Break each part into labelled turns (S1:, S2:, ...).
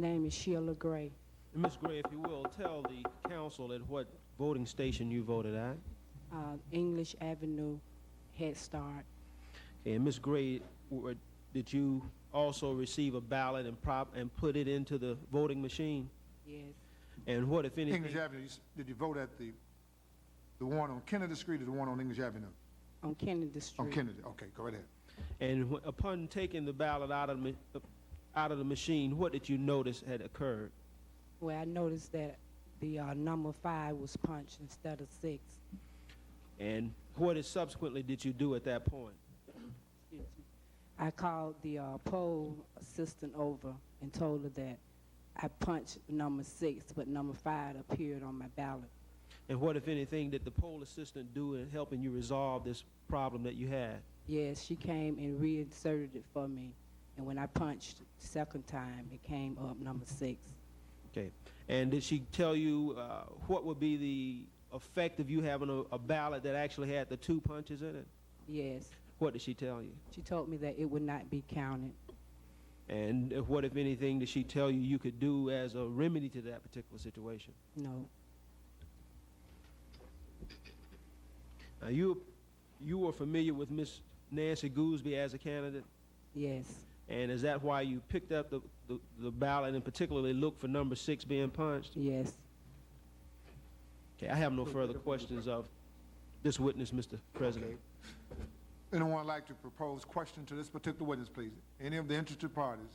S1: name is Sheila Gray.
S2: Ms. Gray, if you will, tell the council at what voting station you voted at.
S1: uh, English Avenue Head Start.
S2: And Ms. Gray, were- did you also receive a ballot and prop, and put it into the voting machine?
S1: Yes,
S2: And what, if anything?
S3: English Avenue, you s- did you vote at the, the one on Kennedy Street or the one on English Avenue?
S1: on Kennedy Street.
S3: On Kennedy, okay, go right ahead.
S2: And wh- upon taking the ballot out of, the ma- out of the machine, what did you notice had occurred?
S1: Where I noticed that the uh, number five was punched instead of six.
S2: And what is subsequently did you do at that point?
S1: Excuse me. I called the uh, poll assistant over and told her that I punched number six, but number five appeared on my ballot.
S2: And what, if anything, did the poll assistant do in helping you resolve this problem that you had?
S1: Yes, she came and reinserted it for me. And when I punched second time, it came up number six.
S2: Okay. And did she tell you uh, what would be the effect of you having a, a ballot that actually had the two punches in it?
S1: Yes,
S2: What did she tell you?
S1: she told me that it would not be counted.
S2: And uh, what, if anything, did she tell you you could do as a remedy to that particular situation?
S1: No.
S2: Now, you, you were familiar with Miss Nancy Gooseby as a candidate,
S1: Yes,
S2: and is that why you picked up the, the, the ballot and particularly looked for number six being punched?
S1: yes.
S2: Okay, I have no further questions of this witness, Mr. President.
S3: Anyone like to propose question to this particular witness, please? Any of the interested parties?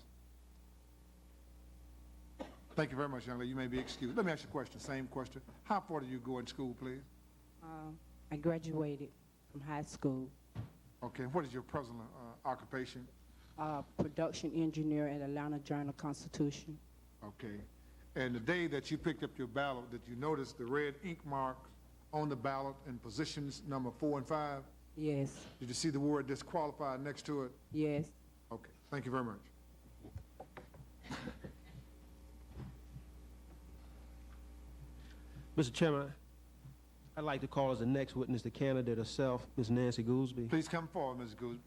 S3: Thank you very much, young lady, you may be excused. Let me ask you a question, same question. How far did you go in school, please?
S1: Um, I graduated from high school,
S3: Okay, what is your present uh, occupation?
S1: uh, production engineer at Atlanta Journal Constitution.
S3: Okay. And the day that you picked up your ballot, did you notice the red ink mark on the ballot in positions number four and five?
S1: Yes,
S3: Did you see the word disqualified next to it?
S1: yes.
S3: Okay, thank you very much.
S2: Mr. Chairman, I'd like to call as the next witness the candidate herself, Ms. Nancy Gooseby.
S3: Please come forward, Ms. Gooseby.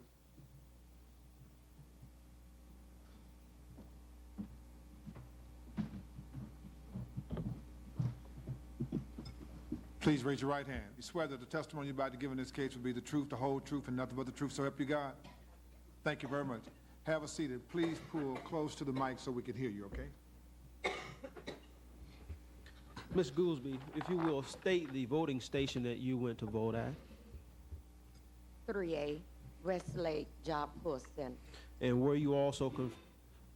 S3: Please raise your right hand. You swear that the testimony you're about to give in this case will be the truth, the whole truth, and nothing but the truth, so help you God? Thank you very much. Have a seat, and please pull close to the mic so we can hear you, okay?
S2: Ms. Gooseby, if you will, state the voting station that you went to vote at,
S4: 3A Westlake Job Corps Center.
S2: and were you also con-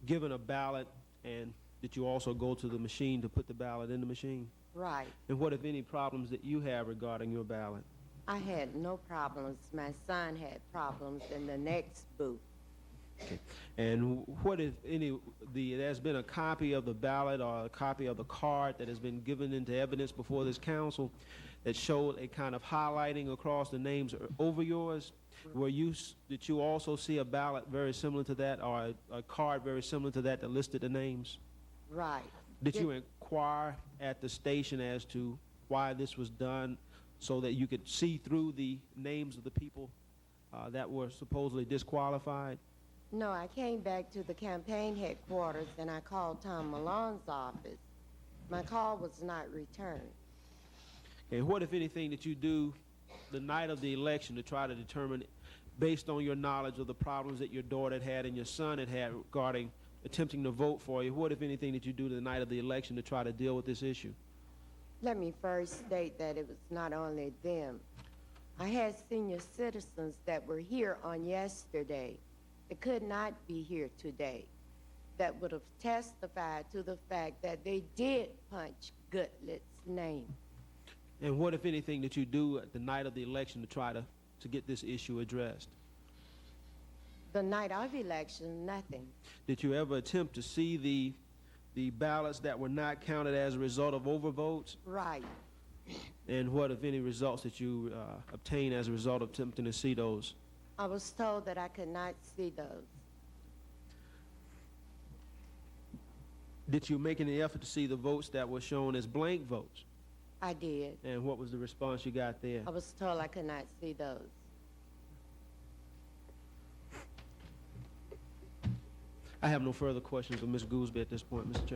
S2: given a ballot, and did you also go to the machine to put the ballot in the machine?
S4: Right.
S2: And what, if any, problems that you have regarding your ballot?
S4: I had no problems. My son had problems in the next booth.
S2: And what, if any, the, there's been a copy of the ballot or a copy of the card that has been given into evidence before this council that showed a kind of highlighting across the names over yours? Were you, s- did you also see a ballot very similar to that or a, a card very similar to that that listed the names?
S4: Right.
S2: Did you inquire at the station as to why this was done so that you could see through the names of the people uh, that were supposedly disqualified?
S4: No, I came back to the campaign headquarters and I called Tom Malone's office. My call was not returned.
S2: And what, if anything, did you do the night of the election to try to determine, based on your knowledge of the problems that your daughter had had and your son had had regarding attempting to vote for you, what, if anything, did you do the night of the election to try to deal with this issue?
S4: Let me first state that it was not only them. I had senior citizens that were here on yesterday that could not be here today that would have testified to the fact that they did punch Goodlet's name.
S2: And what, if anything, did you do at the night of the election to try to, to get this issue addressed?
S4: The night of election, nothing.
S2: Did you ever attempt to see the, the ballots that were not counted as a result of overvotes?
S4: Right.
S2: And what, if any, results that you uh, obtained as a result of attempting to see those?
S4: I was told that I could not see those.
S2: Did you make any effort to see the votes that were shown as blank votes?
S4: I did.
S2: And what was the response you got there?
S4: I was told I could not see those.
S2: I have no further questions of Ms. Goolsbee at this point, Mr. Chairman.